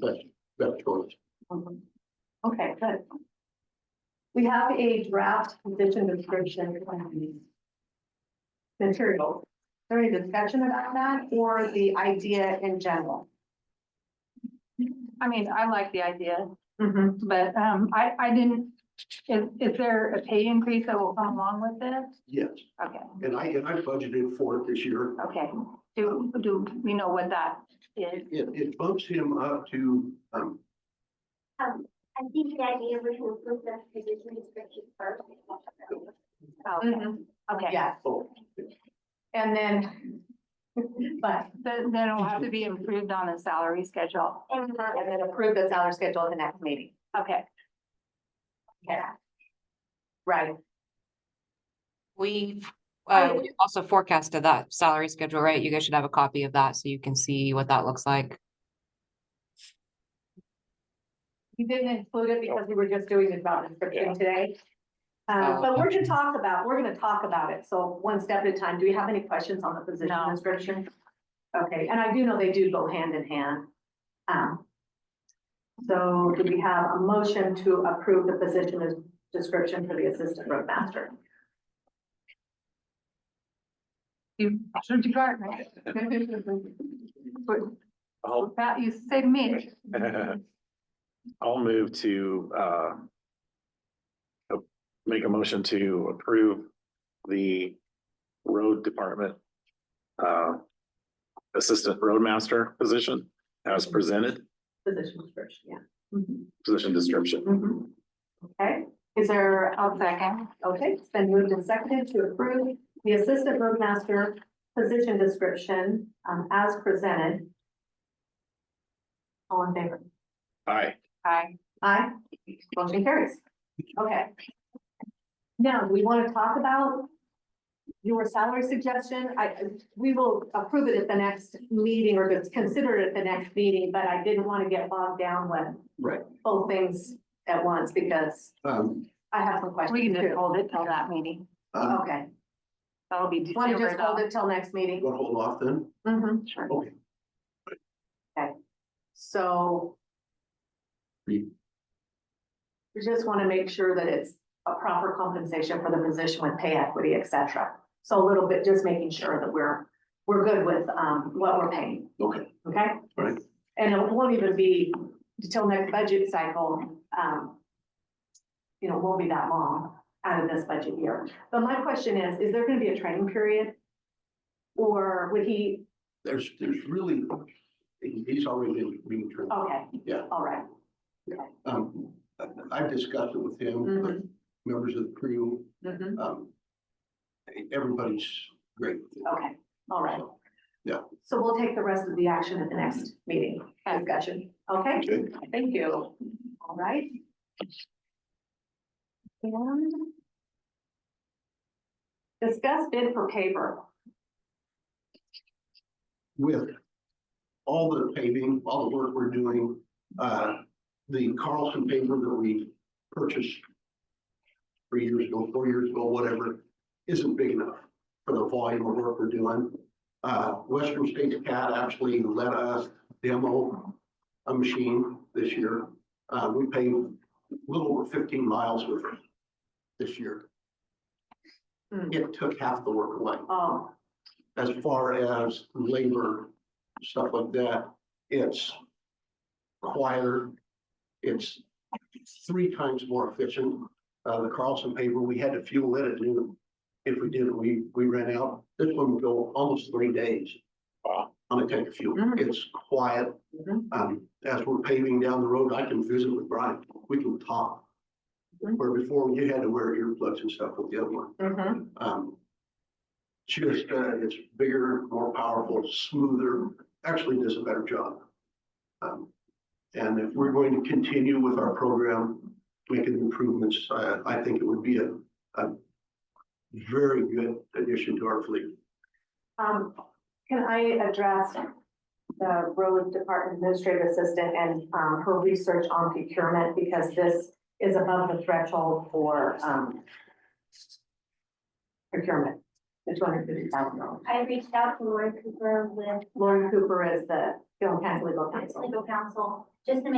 that's, that's choice. Mhm. Okay, good. We have a draft position description. um, Material. Is there any discussion about that or the idea in general? I mean, I like the idea, but um, I, I didn't, is, is there a pay increase that will come along with this? Yes, Okay, and I, and I budgeted for it this year. okay. Do, do we know what that is? It, it bumps him up to, um, Um, I think the idea was to approve the position description first. Okay, Mm-hmm. okay. Yes, oh, and then. But, Then, then it'll have to be improved on the salary schedule. And the, and then approve the salary schedule at the next meeting. Okay, Okay. Right, We, I- uh, we also forecasted that salary schedule, right? You guys should have a copy of that so you can see what that looks like. you didn't include it because we were just doing the job description today. Um, but we're gonna talk about, we're gonna talk about it, so one step at a time. Do you have any questions on the position No. description? Okay, and I do know they do go hand in hand. Um. So do we have a motion to approve the position as- description for the assistant roadmaster? you should be right, right? I'll, That you saved me. I'll move to, uh, uh, make a motion to approve the road department, uh, assistant roadmaster position as presented, Position description, yeah. position description. Mhm. Okay, is there, I'll second. Okay, it's been moved and seconded to approve the assistant roadmaster position description um, as presented. All in favor? Aye. Aye. Aye. Motion carries. Okay. Now, we want to talk about your salary suggestion. I, we will approve it at the next meeting or just consider it at the next meeting, but I didn't want to get bogged down with right, both things at once because um, I have some questions We can just too. hold it till that meeting. uh, Okay, That'll be want to December just hold though. it till next meeting? you wanna hold off then? Mhm. Sure. Okay, So. Read. We just want to make sure that it's a proper compensation for the position with pay equity, et cetera. So a little bit, just making sure that we're, we're good with, um, what we're paying, okay, okay? Right. And it won't even be until next budget cycle, um, you know, won't be that long out of this budget year. But my question is, is there going to be a training period? Or would he, there's, there's really, he's already in green term. okay, Yeah. all right. Um, I've discussed it with him, with members of the crew, Mhm. um, everybody's great with it. Okay, all right. Yeah. So we'll take the rest of the action at the next meeting, discussion, okay? Okay. Thank you. All right. And discuss bid for paper. with all the paving, all the work we're doing, uh, the Carlson paper that we purchased three years ago, four years ago, whatever, isn't big enough for the volume of work we're doing. Uh, Western States Cat actually let us demo a machine this year. Uh, we paved a little over fifteen miles with it this year. Hmm. It took half the work away Oh, as far as labor, stuff like that, it's quieter. It's three times more efficient. Uh, the Carlson paper, we had to fuel it at noon. If we didn't, we, we ran out. This one would go almost three days. uh, On a tank of fuel. Mhm. It's quiet. Mhm. Um, as we're paving down the road, I can visit with Brian. We can talk. Mhm. Where before you had to wear earplugs and stuff with the other one. mhm, Um, Just, uh, it's bigger, more powerful, smoother, actually does a better job. Um, And if we're going to continue with our program, making improvements, I, I think it would be a, a very good addition to our fleet. um, can I address the road department administrative assistant and, um, her research on procurement? Because this is above the threshold for, um, procurement, the two hundred fifty thousand dollars. I reached out to Lauren Cooper with, Lauren Cooper is the Bill Cass, legal counsel. legal counsel, just to make